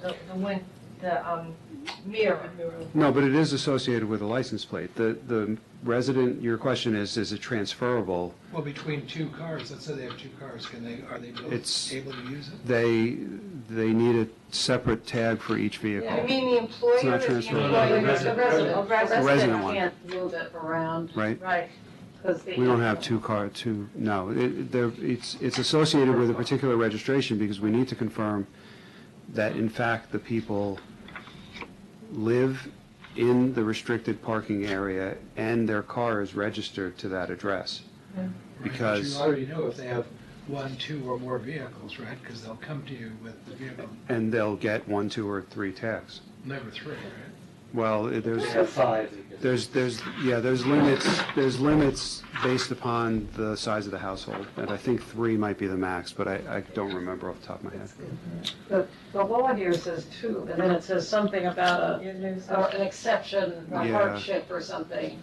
the, the win, the, um, mirror. No, but it is associated with a license plate. The, the resident, your question is, is it transferable? Well, between two cars, let's say they have two cars, can they, are they It's- both able to use it? They, they need a separate tag for each vehicle. You mean the It's employer not or the transferable. employer? No, no, the resident. Oh, resident. The resident one. can't move it around Right? Right, because they. We don't have two car, two, no. It- It, there, it's, it's associated with a particular registration because we need to confirm that in fact the people live in the restricted parking area and their car is registered to that address. But Because- You already know if they have one, two, or more vehicles, right? Because they'll come to you with the vehicle And they'll get one, two, or three tags. number three, right? Well, it- there's. They have five. they could- There's, there's, yeah, there's limits, there's limits based upon the size of the household, and I think three might be the max, but I, I don't remember off the top of my head. The, the law here says two, and then it says something about a, or an exception, a Yeah. hardship or something.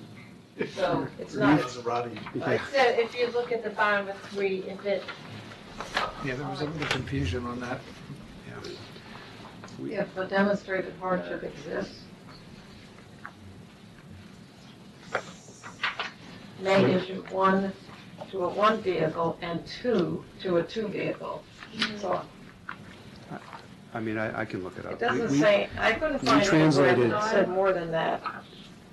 So it's not, It's a Roddy. it said, if you look at the bottom of three, if it, Yeah, there was a little confusion on that. if a demonstrated hardship exists. May issue one to a one vehicle and two to a two vehicle. So I mean, I, I can look it up. It We- doesn't we- say, I couldn't we find anywhere translated- that said more than that.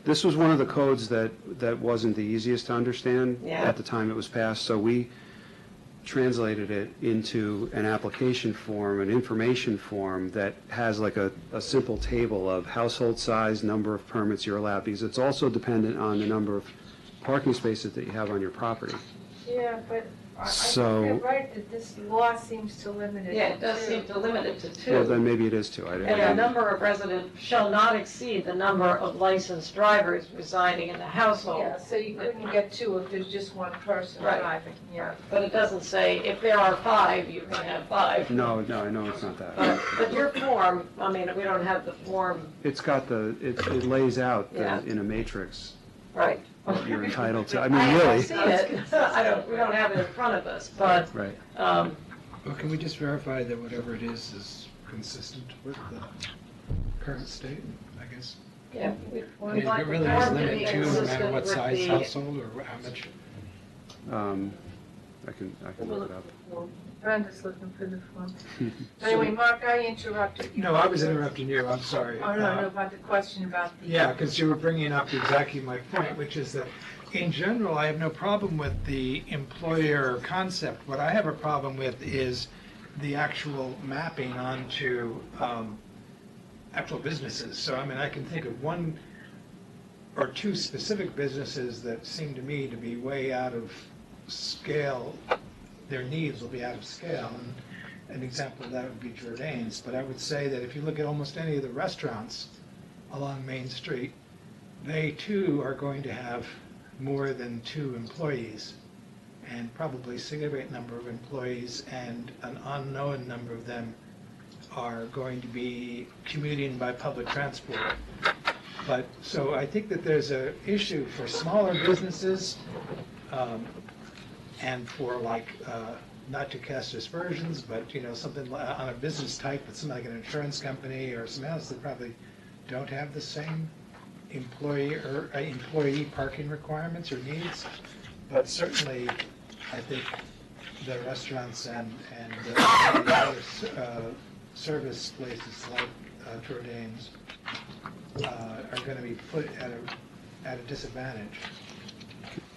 This was one of the codes that, that wasn't the easiest to understand Yeah. at the time it was passed, so we translated it into an application form, an information form that has like a, a simple table of household size, number of permits you're allowed, because it's also dependent on the number of parking spaces that you have on your property. yeah, but I, I So- think you're right, that this law seems to limit it. Yeah, it does to- seem to limit it to Well, two. then maybe it is two. I And the didn't- number of resident shall not exceed the number of licensed drivers residing in the household. Yeah, so you couldn't get two if there's just one person Right. driving, yeah. But it doesn't say, if there are five, you can have five. No, no, I know it's not But, that. but your form, I mean, we don't have the form, It's got the, it it lays out the- Yeah. in a matrix right. what you're entitled to, I I mean, haven't really. seen it, I don't, we don't have it in front of us, but, Right. um, Well, can we just verify that whatever it is is consistent with the current state, I guess? yeah. we- I we'd mean, like it the really form is to be limited to no matter consistent what with size the- household or how much. Um, I can, I can look it up. Brenda's looking for the form. Anyway, Mark, I interrupted. you. No, I was interrupting you, I'm sorry. Oh, no, Uh, no, about the question about the. Yeah, because you were bringing up exactly my point, which is that in general, I have no problem with the employer concept. What I have a problem with is the actual mapping onto um, actual businesses. So I mean, I can think of one or two specific businesses that seem to me to be way out of scale. Their needs will be out of scale. And An example of that would be Jordanes. But I would say that if you look at almost any of the restaurants, along Main Street, they too are going to have more than two employees, and probably significant number of employees, and an unknown number of them are going to be commuting by public transport. But, so I think that there's a issue for smaller businesses, um, and for like, uh, not to cast aspersions, but, you know, something li- on a business type, but something like an insurance company or something else that probably don't have the same employee or uh, employee parking requirements or needs. But certainly, I think the restaurants and, and uh, the other s- uh, service places like uh, Jordanes uh, are going to be put at a, at a disadvantage.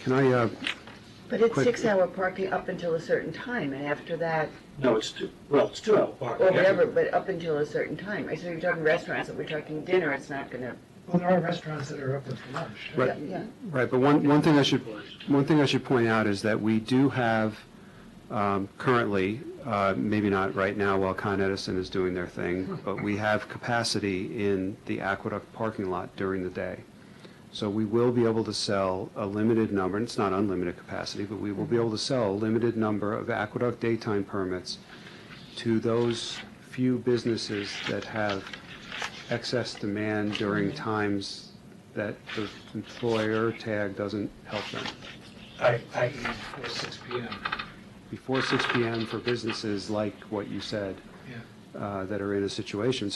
Can I, uh, But it's Quick. six-hour parking up until a certain time, and after that, No, it's two, well, it's two hour parking. or whatever, but up until a certain time. I So you're talking restaurants, and we're talking dinner, it's not gonna, Well, there are restaurants that are open for lunch. Right. yeah. right, but one, one thing I should, one thing I should point out is that we do have um, currently, uh, maybe not right now while Con Edison is doing their thing, but we have capacity in the Aqueduct parking lot during the day. So we will be able to sell a limited number, and it's not unlimited capacity, but we will be able to sell a limited number of Aqueduct daytime permits to those few businesses that have excess demand during times that the employer tag doesn't help them. I, I, before six P M. Before 6 PM for businesses like what you said, Yeah. uh, that are in a situation